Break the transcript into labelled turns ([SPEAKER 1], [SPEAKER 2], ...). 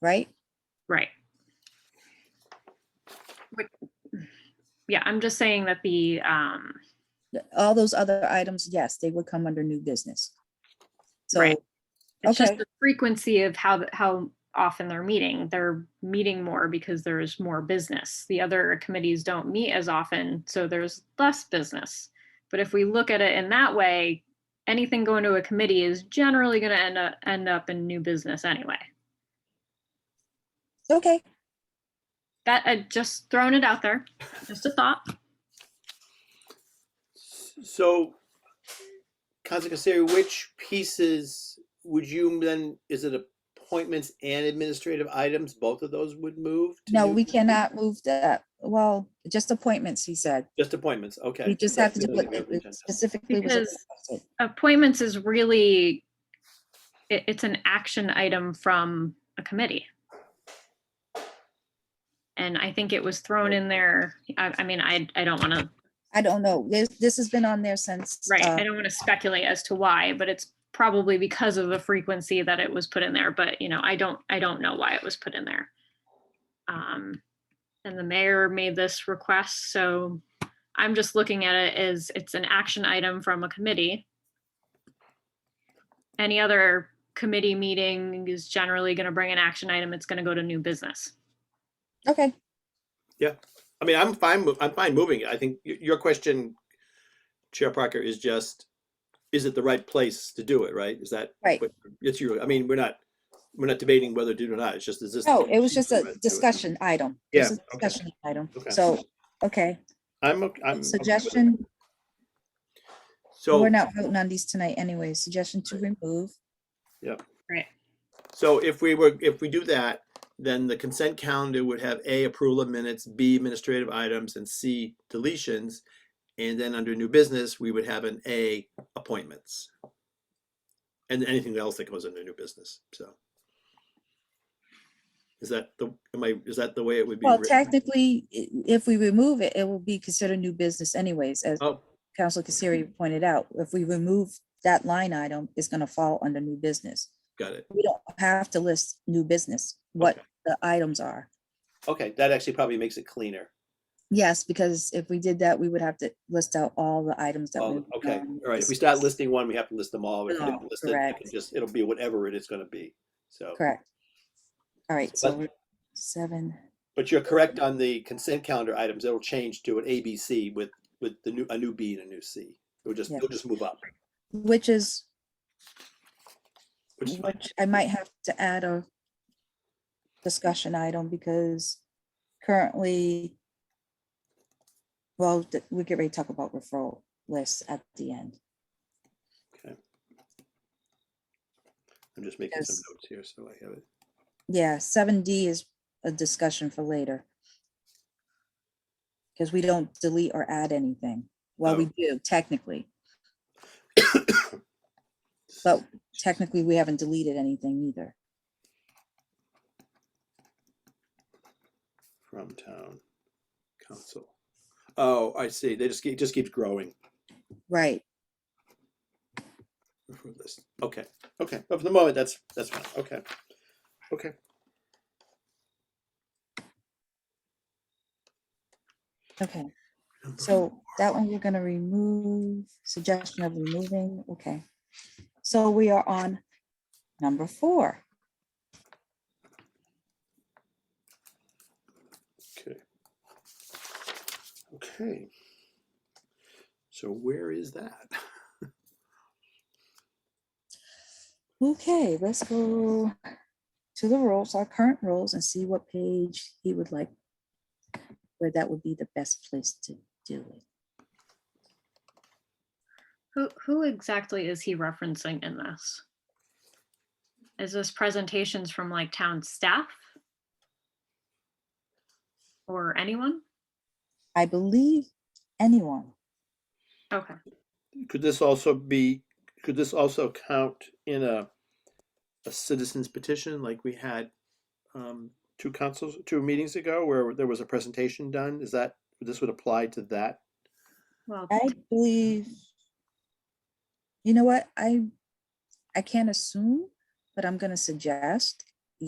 [SPEAKER 1] right?
[SPEAKER 2] Right. Which- Yeah, I'm just saying that the, um,
[SPEAKER 1] Th- All those other items, yes, they would come under new business. So,
[SPEAKER 2] Right. it's just
[SPEAKER 1] Okay.
[SPEAKER 2] the frequency of how, th- how often they're meeting. They're meeting more because there's more business. The other committees don't meet as often, so there's less business. But if we look at it in that way, anything going to a committee is generally gonna end up, end up in new business anyway.
[SPEAKER 1] okay,
[SPEAKER 2] That, I just thrown it out there, just a thought.
[SPEAKER 3] So, Council Casari, which pieces would you then, is it appointments and administrative items? Both of those would move? to
[SPEAKER 1] no,
[SPEAKER 3] new-
[SPEAKER 1] we cannot move that, well, just appointments, he said.
[SPEAKER 3] Just appointments, okay.
[SPEAKER 1] We just have to do
[SPEAKER 3] That's
[SPEAKER 1] what
[SPEAKER 3] the
[SPEAKER 1] it
[SPEAKER 3] agenda.
[SPEAKER 1] specifically was
[SPEAKER 2] Because-
[SPEAKER 1] requested.
[SPEAKER 2] appointments is really, it, it's an action item from a committee. And I think it was thrown in there, I, I mean, I, I don't want to,
[SPEAKER 1] I don't know, this, this has been on there since.
[SPEAKER 2] right,
[SPEAKER 1] uh,
[SPEAKER 2] I don't want to speculate as to why, but it's probably because of the frequency that it was put in there, but you know, I don't, I don't know why it was put in there. Um, and the mayor made this request, so I'm just looking at it as it's an action item from a committee. Any other committee meeting is generally going to bring an action item. It's going to go to new business.
[SPEAKER 1] Okay,
[SPEAKER 3] I mean, I'm fine, mo- I'm fine moving it. I think y- your question, Chair Parker, is just, is it the right place to do it, right? Is that?
[SPEAKER 1] Right.
[SPEAKER 3] what- It's your, I mean, we're not, we're not debating whether to do it or not. It's just, is this?
[SPEAKER 1] no, it was just
[SPEAKER 3] Do
[SPEAKER 1] a
[SPEAKER 3] it.
[SPEAKER 1] discussion item. It was a
[SPEAKER 3] Yeah, okay.
[SPEAKER 1] Discussion item,
[SPEAKER 3] Okay.
[SPEAKER 1] so, okay,
[SPEAKER 3] I'm, ok- I'm. okay with it.
[SPEAKER 1] suggestion,
[SPEAKER 3] So.
[SPEAKER 1] we're not voting on these tonight anyway, suggestion to remove.
[SPEAKER 2] Right.
[SPEAKER 3] So if we were, if we do that, then the consent calendar would have A, approval of minutes, B, administrative items, and C, deletions. And then under new business, we would have an A, appointments. And anything else that goes under new business, so. Is that the, am I, is that the way it would be?
[SPEAKER 1] Well,
[SPEAKER 3] written?
[SPEAKER 1] technically, i- if we remove it, it will be considered new business anyways, as
[SPEAKER 3] Oh,
[SPEAKER 1] Council Casari pointed out. If we remove that line item, it's gonna fall under new business.
[SPEAKER 3] got it.
[SPEAKER 1] We don't have to list new business, what
[SPEAKER 3] Okay.
[SPEAKER 1] the items are.
[SPEAKER 3] Okay, that actually probably makes it cleaner.
[SPEAKER 1] Yes, because if we did that, we would have to list out all the items that.
[SPEAKER 3] All
[SPEAKER 1] we
[SPEAKER 3] the- Okay,
[SPEAKER 1] um,
[SPEAKER 3] all right. If we start
[SPEAKER 1] discussed.
[SPEAKER 3] listing one, we have to list them all. If we didn't
[SPEAKER 1] Oh,
[SPEAKER 3] list it, it, can
[SPEAKER 1] correct.
[SPEAKER 3] just, it'll be whatever it is gonna be, so.
[SPEAKER 1] Correct. All right, so
[SPEAKER 3] But-
[SPEAKER 1] we're seven,
[SPEAKER 3] But you're correct on the consent calendar items. It'll change to an A, B, C with, with the new, a new B and a new C. It'll just,
[SPEAKER 1] Yeah.
[SPEAKER 3] it'll just move up,
[SPEAKER 1] which is,
[SPEAKER 3] which is fine.
[SPEAKER 1] which I might have to add a discussion item because currently, well, th- we get ready to talk about referral lists at the end.
[SPEAKER 3] I'm just making some
[SPEAKER 1] Yes.
[SPEAKER 3] notes here, so I have it.
[SPEAKER 1] Yeah, seven D is a discussion for later. Because we don't delete or add anything. Well,
[SPEAKER 3] Oh.
[SPEAKER 1] we do technically. But technically, we haven't deleted anything either.
[SPEAKER 3] From town council. Oh, I see. They just, keep- it just keeps growing.
[SPEAKER 1] Right,
[SPEAKER 3] for this. Okay, okay. But for the moment, that's, that's fine. Okay. Okay.
[SPEAKER 1] okay. So that one we're gonna remove, suggestion of removing, okay. So we are on number four.
[SPEAKER 3] Okay. Okay. So where is that?
[SPEAKER 1] Okay, let's go to the rules, our current rules, and see what page he would like. Where that would be the best place to do it.
[SPEAKER 2] Who, who exactly is he referencing in this? Is this presentations from like town staff? Or anyone?
[SPEAKER 1] I believe anyone.
[SPEAKER 2] Okay.
[SPEAKER 3] Could this also be, could this also count in a, a citizen's petition like we had um, two councils, two meetings ago where there was a presentation done? Is that, this would apply to that?
[SPEAKER 2] Well,
[SPEAKER 1] I believe. You know what, I, I can't assume, but I'm gonna suggest